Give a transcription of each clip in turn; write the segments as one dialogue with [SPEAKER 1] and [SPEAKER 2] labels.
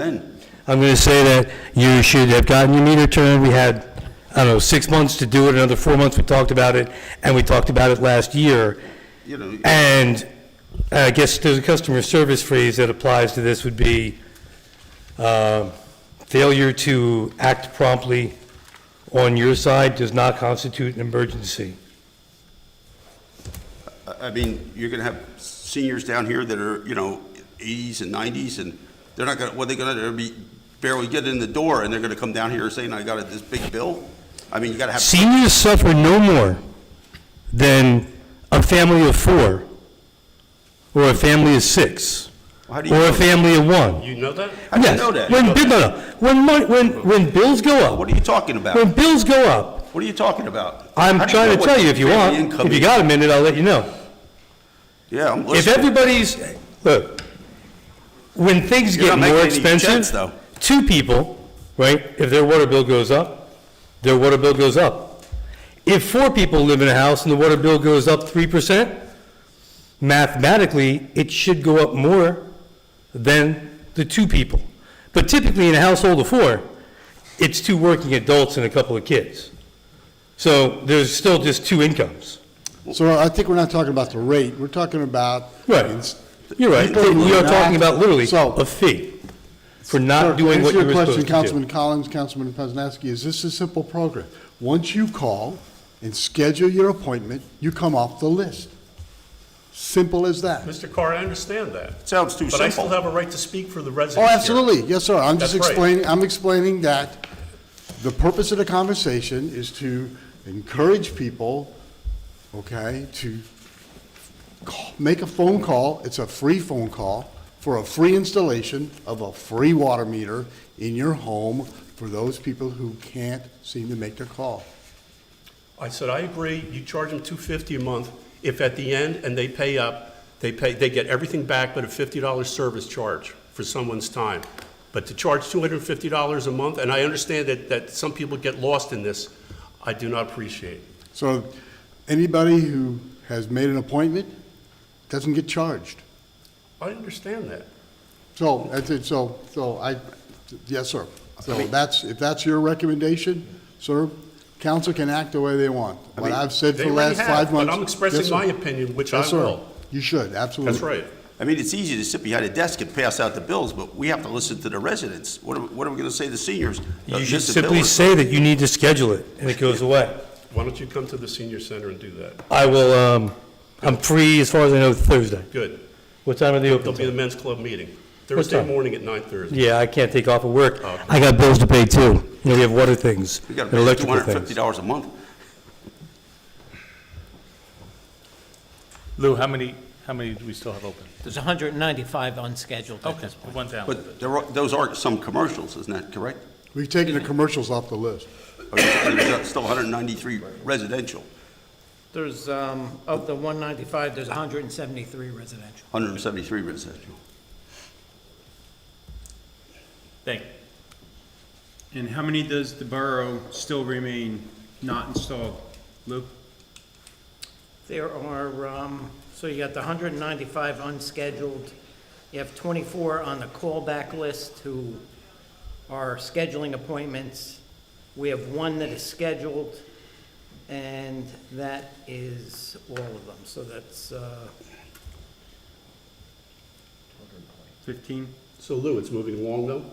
[SPEAKER 1] Then,
[SPEAKER 2] I'm going to say that you should have gotten your meter turned. We had, I don't know, six months to do it, another four months we talked about it, and we talked about it last year.
[SPEAKER 1] you know,
[SPEAKER 2] And uh, I guess there's a customer service phrase that applies to this would be uh, failure to act promptly on your side does not constitute an emergency.
[SPEAKER 1] I- I mean, you're going to have seniors down here that are, you know, 80s and 90s, and they're not going to, what are they going to, they'll be barely getting in the door, and they're going to come down here saying, I got a- this big bill? I mean, you got to have,
[SPEAKER 2] Seniors suffer no more than a family of four, or a family of six,
[SPEAKER 1] how do you
[SPEAKER 2] or
[SPEAKER 1] know
[SPEAKER 2] a
[SPEAKER 1] that?
[SPEAKER 2] family of one.
[SPEAKER 3] You know that?
[SPEAKER 1] How do you
[SPEAKER 2] Yes.
[SPEAKER 1] know that?
[SPEAKER 2] When, bi- no, no. When, mon- when, when bills go
[SPEAKER 1] What
[SPEAKER 2] up,
[SPEAKER 1] are you talking about?
[SPEAKER 2] when bills go up,
[SPEAKER 1] What are you talking about? How
[SPEAKER 2] I'm
[SPEAKER 1] do
[SPEAKER 2] trying
[SPEAKER 1] know
[SPEAKER 2] to
[SPEAKER 1] what
[SPEAKER 2] tell
[SPEAKER 1] the
[SPEAKER 2] you if you
[SPEAKER 1] family
[SPEAKER 2] want,
[SPEAKER 1] income
[SPEAKER 2] if you
[SPEAKER 1] is?
[SPEAKER 2] got a minute, I'll let you know.
[SPEAKER 1] Yeah, I'm
[SPEAKER 2] If
[SPEAKER 1] listening.
[SPEAKER 2] everybody's, look, when things
[SPEAKER 1] You're
[SPEAKER 2] get
[SPEAKER 1] not making
[SPEAKER 2] more
[SPEAKER 1] any sense,
[SPEAKER 2] expensive,
[SPEAKER 1] though.
[SPEAKER 2] two people, right, if their water bill goes up, their water bill goes up. If four people live in a house and the water bill goes up three percent, mathematically, it should go up more than the two people. But typically, in a household of four, it's two working adults and a couple of kids. So there's still just two incomes.
[SPEAKER 4] So I think we're not talking about the rate, we're talking about.
[SPEAKER 2] Right.
[SPEAKER 4] It's-
[SPEAKER 2] You're right.
[SPEAKER 4] People
[SPEAKER 2] We are
[SPEAKER 4] who
[SPEAKER 2] talking about literally
[SPEAKER 4] So-
[SPEAKER 2] a fee for not doing what you were
[SPEAKER 4] Answer your
[SPEAKER 2] supposed
[SPEAKER 4] question,
[SPEAKER 2] to do.
[SPEAKER 4] Councilman Collins, Councilman Poznanski, is this a simple program? Once you call and schedule your appointment, you come off the list. Simple as that.
[SPEAKER 3] Mr. Carr, I understand that.
[SPEAKER 1] Sounds too
[SPEAKER 3] But I still
[SPEAKER 1] simple.
[SPEAKER 3] have a right to speak for the residents
[SPEAKER 4] Oh,
[SPEAKER 3] here.
[SPEAKER 4] absolutely, yes, sir, I'm just
[SPEAKER 3] That's right.
[SPEAKER 4] explaining, I'm explaining that the purpose of the conversation is to encourage people, okay, to call- make a phone call, it's a free phone call, for a free installation of a free water meter in your home for those people who can't seem to make their call.
[SPEAKER 3] I said, I agree, you charge them two fifty a month. If at the end, and they pay up, they pay, they get everything back but a fifty dollar service charge for someone's time. But to charge two hundred and fifty dollars a month, and I understand that, that some people get lost in this, I do not appreciate.
[SPEAKER 4] So anybody who has made an appointment doesn't get charged.
[SPEAKER 3] I understand that.
[SPEAKER 4] So, I think, so, so I, yes, sir. So that's, if that's your recommendation, sir, council can act the way they want. What I've said for
[SPEAKER 3] They
[SPEAKER 4] the
[SPEAKER 3] already
[SPEAKER 4] last
[SPEAKER 3] have,
[SPEAKER 4] five
[SPEAKER 3] but
[SPEAKER 4] months.
[SPEAKER 3] I'm
[SPEAKER 4] Yes,
[SPEAKER 3] expressing
[SPEAKER 4] sir.
[SPEAKER 3] my opinion, which I
[SPEAKER 4] Yes, sir.
[SPEAKER 3] will.
[SPEAKER 4] You should, absolutely.
[SPEAKER 3] That's right.
[SPEAKER 1] I mean, it's easy to sit behind a desk and pass out the bills, but we have to listen to the residents. What are, what are we going to say to seniors? Uh,
[SPEAKER 2] You should
[SPEAKER 1] this is a bill
[SPEAKER 2] simply
[SPEAKER 1] or-
[SPEAKER 2] say that you need to schedule it, and it goes away.
[SPEAKER 3] Why don't you come to the senior center and do that?
[SPEAKER 2] I will, um, I'm free, as far as I know, Thursday.
[SPEAKER 3] Good.
[SPEAKER 2] What time are they open
[SPEAKER 3] There'll be the
[SPEAKER 2] till?
[SPEAKER 3] men's club meeting, Thursday
[SPEAKER 2] time?
[SPEAKER 3] morning at nine thirty.
[SPEAKER 2] Yeah, I can't take off of work.
[SPEAKER 3] Okay.
[SPEAKER 2] I got bills to pay too. You know, we have water things,
[SPEAKER 1] We
[SPEAKER 2] and
[SPEAKER 1] got to pay two
[SPEAKER 2] electrical
[SPEAKER 1] hundred and fifty
[SPEAKER 2] things.
[SPEAKER 1] dollars a month.
[SPEAKER 5] Lou, how many, how many do we still have open?
[SPEAKER 6] There's 195 unscheduled at this point.
[SPEAKER 5] One down.
[SPEAKER 1] But there are, those are some commercials, isn't that correct?
[SPEAKER 4] We've taken the commercials off the list.
[SPEAKER 1] Or there's Still 193 residential,
[SPEAKER 6] There's, um, of the 195, there's 173 residential.
[SPEAKER 1] 173 residential.
[SPEAKER 5] Thank you.
[SPEAKER 7] And how many does the borough still remain not installed? Lou?
[SPEAKER 6] There are, um, so you got the 195 unscheduled. You have 24 on the callback list who are scheduling appointments. We have one that is scheduled, and that is all of them. So that's, uh,
[SPEAKER 7] Fifteen?
[SPEAKER 3] So Lou, it's moving along though?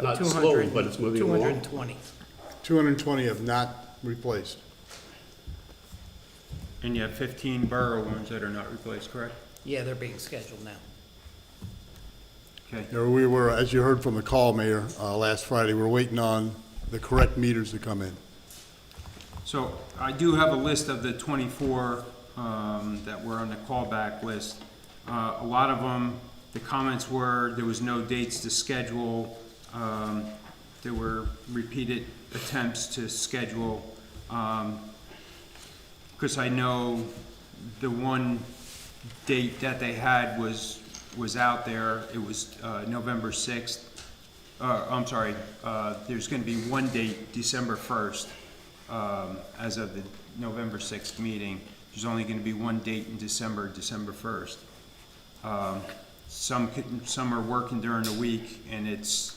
[SPEAKER 3] Not
[SPEAKER 6] 200
[SPEAKER 3] slowly, but it's moving along.
[SPEAKER 6] 220.
[SPEAKER 4] 220 have not replaced.
[SPEAKER 7] And you have fifteen borough ones that are not replaced, correct?
[SPEAKER 6] Yeah, they're being scheduled now.
[SPEAKER 7] Okay.
[SPEAKER 4] You know, We were, as you heard from the call, Mayor, uh, last Friday, we're waiting on the correct meters to come in.
[SPEAKER 7] So I do have a list of the twenty-four, um, that were on the callback list. Uh, a lot of them, the comments were, there was no dates to schedule. Um, there were repeated attempts to schedule. Um, Because I know the one date that they had was, was out there, it was uh, November 6th. Uh, I'm sorry, uh, there's going to be one date, December 1st, um, as of the November 6th meeting. There's only going to be one date in December, December 1st. Um, Some, could- some are working during the week, and it's,